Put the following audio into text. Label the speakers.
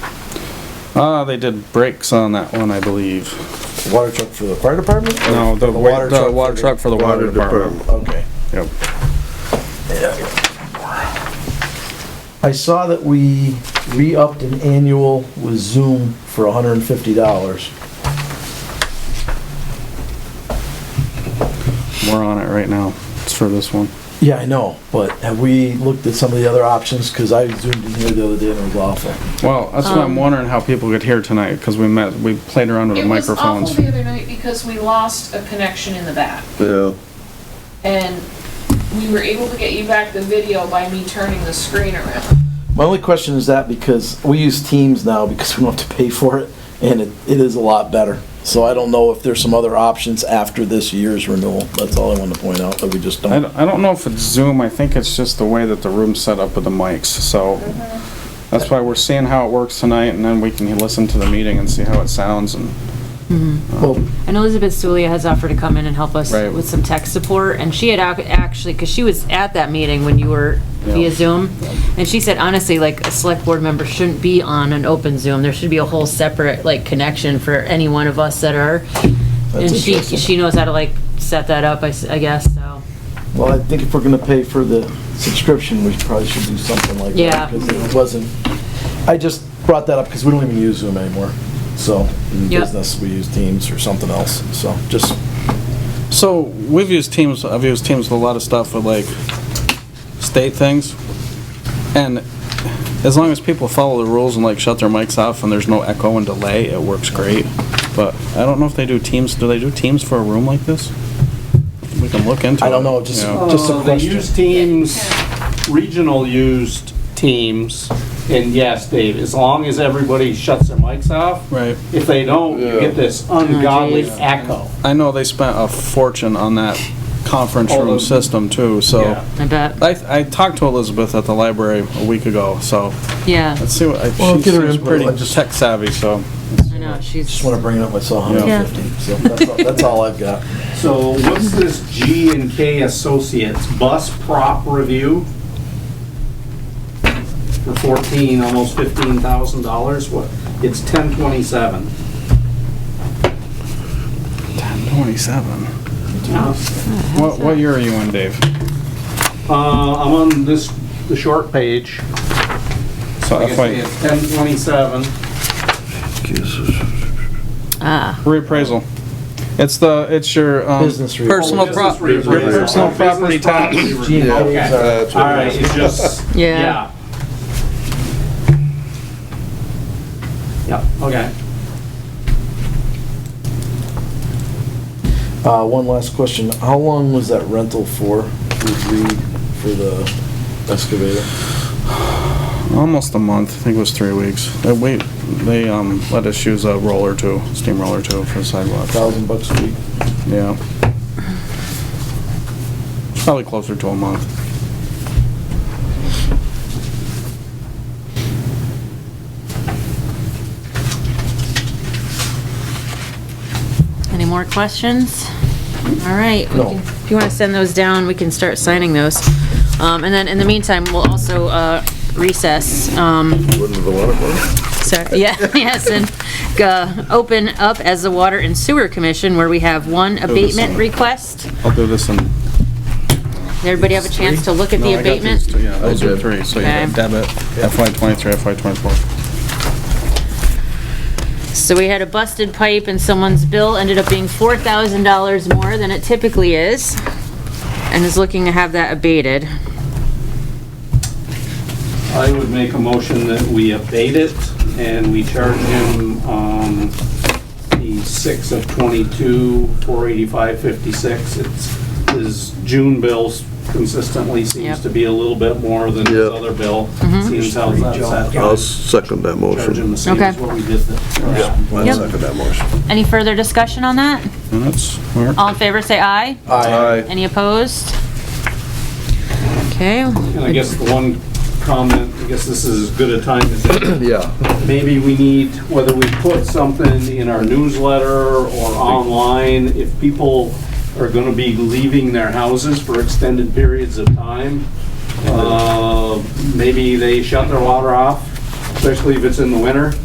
Speaker 1: Uh, they did brakes on that one, I believe.
Speaker 2: Water truck for the fire department? or
Speaker 1: No, the wa- the
Speaker 2: truck
Speaker 1: water truck for the water department.
Speaker 2: Okay.
Speaker 1: Yep.
Speaker 2: I saw that we re-upped an annual with Zoom for hundred and fifty dollars.
Speaker 1: We're on it right now. It's for this one.
Speaker 2: Yeah, I know, but have we looked at some of the other options? Cause I zoomed in here the other day and it was awful.
Speaker 1: Well, that's what I'm wondering how people could hear tonight, because we met, we played around with the
Speaker 3: Um, It was awful
Speaker 1: microphones.
Speaker 3: the other night because we lost a connection in the back.
Speaker 4: Yeah,
Speaker 3: And we were able to get you back the video by me turning the screen around.
Speaker 2: My only question is that because we use Teams now because we don't have to pay for it and it, it is a lot better. So I don't know if there's some other options after this year's renewal. That's all I want to point out, that we just
Speaker 1: I
Speaker 2: don't.
Speaker 1: don't, I don't know if it's Zoom, I think it's just the way that the room's set up with the mics, so.
Speaker 3: Mm-hmm.
Speaker 1: That's why we're seeing how it works tonight, and then we can listen to the meeting and see how it sounds and.
Speaker 2: Well,
Speaker 5: And Elizabeth Stulia has offered to come in and help us
Speaker 1: Right.
Speaker 5: with some tech support, and she had ac- actually, because she was at that meeting when you were
Speaker 1: Yeah.
Speaker 5: via Zoom, and she said honestly, like, a select board member shouldn't be on an open Zoom, there should be a whole separate, like, connection for any one of us that are.
Speaker 2: That's
Speaker 5: And she,
Speaker 2: interesting.
Speaker 5: she knows how to, like, set that up, I, s- I guess, so,
Speaker 2: Well, I think if we're gonna pay for the subscription, we probably should do something like that.
Speaker 5: Yeah.
Speaker 2: Because it wasn't, I just brought that up because we don't even use Zoom anymore, so. In
Speaker 5: Yep.
Speaker 2: business, we use Teams or something else, so just,
Speaker 1: So, we've used Teams, I've used Teams with a lot of stuff with like state things. And as long as people follow the rules and like shut their mics off and there's no echo and delay, it works great. But I don't know if they do Teams, do they do Teams for a room like this? We can look into it.
Speaker 2: I don't know, just,
Speaker 1: yeah.
Speaker 2: just a
Speaker 6: Uh, They
Speaker 2: question.
Speaker 6: use Teams, regional used Teams, and yes, Dave, as long as everybody shuts their mics off.
Speaker 1: Right.
Speaker 6: If they don't, you get this ungodly
Speaker 5: geez.
Speaker 6: echo.
Speaker 1: I know they spent a fortune on that conference
Speaker 6: All
Speaker 1: room
Speaker 6: of-
Speaker 1: system too, so.
Speaker 6: Yeah.
Speaker 5: I bet,
Speaker 1: I, I talked to Elizabeth at the library a week ago, so
Speaker 5: yeah,
Speaker 1: let's see what, I-
Speaker 2: Well,
Speaker 1: she
Speaker 2: get her
Speaker 1: seems
Speaker 2: input,
Speaker 1: pretty
Speaker 2: I just-
Speaker 1: tech savvy, so.
Speaker 5: I know, she's,
Speaker 2: Just wanna bring it up, I saw
Speaker 5: Yeah.
Speaker 2: 150, so that's, all- that's all I've got.
Speaker 6: So what's this G and K Associates bus prop review? For fourteen, almost fifteen thousand dollars, what, it's ten twenty-seven.
Speaker 1: Twenty-seven. What, what year are you in, Dave?
Speaker 6: Uh, I'm on this, the short page.
Speaker 1: So
Speaker 6: Like I say,
Speaker 1: FY,
Speaker 6: it's ten twenty-seven.
Speaker 5: ah,
Speaker 1: reappraisal. It's the, it's your, um.
Speaker 2: Business reappraisal.
Speaker 1: Personal
Speaker 6: Oh,
Speaker 1: prop,
Speaker 6: business
Speaker 1: your
Speaker 6: reappraisal.
Speaker 1: personal
Speaker 6: Business
Speaker 1: property tax.
Speaker 6: property review.
Speaker 2: G and
Speaker 6: Okay.
Speaker 2: K's are-
Speaker 4: that's
Speaker 6: All
Speaker 4: what it
Speaker 6: right,
Speaker 4: is.
Speaker 6: it just,
Speaker 5: yeah,
Speaker 6: yeah. Yep, okay.
Speaker 2: Uh, one last question, how long was that rental for, with Reed, for the excavator?
Speaker 1: Almost a month, I think it was three weeks. They, we, they, um, let us use a roller too, steam roller too for the sidewalk.
Speaker 2: Thousand bucks a week?
Speaker 1: Yeah. It's Probably closer to a month.
Speaker 5: any more questions? All right. we
Speaker 2: No.
Speaker 5: can- If you want to send those down, we can start signing those. Um, and then in the meantime, we'll also, uh, recess, um,
Speaker 4: wouldn't the water
Speaker 5: so, yeah, yes, and, uh, open up as the Water and Sewer Commission where we have one abatement
Speaker 1: one.
Speaker 5: request.
Speaker 1: I'll do this in.
Speaker 5: Did everybody have a chance to look at
Speaker 1: No,
Speaker 5: the
Speaker 1: I got these
Speaker 5: abatement?
Speaker 1: two, Yeah, those are
Speaker 4: did.
Speaker 1: three, so you got
Speaker 5: Okay.
Speaker 1: debit, FY twenty-three, FY twenty-four.
Speaker 5: So we had a busted pipe and someone's bill ended up being four thousand dollars more than it typically is, and is looking to have that abated.
Speaker 6: I would make a motion that we abate it and we charge him, um, the six of twenty-two, four eighty-five, fifty-six. It's, his June bills consistently seems
Speaker 5: Yep. Mm-hmm.
Speaker 6: to be a little bit more than his
Speaker 4: Yep.
Speaker 6: other bill. Seems how that's.
Speaker 4: I'll second that
Speaker 6: Charge
Speaker 4: motion.
Speaker 6: him the same as
Speaker 5: Okay.
Speaker 6: what we did the.
Speaker 4: I'll
Speaker 5: Yep.
Speaker 4: second that motion.
Speaker 5: Any further discussion on that?
Speaker 1: And that's, where-
Speaker 5: All in favor, say aye.
Speaker 4: Aye.
Speaker 5: Any opposed? Okay,
Speaker 6: And I guess the one comment, I guess this is as good a time as any
Speaker 4: Yeah,
Speaker 6: maybe we need, whether we put something in our newsletter or online, if people are gonna be leaving their houses for extended periods of time, uh, maybe they shut their water off, especially if it's in the winter.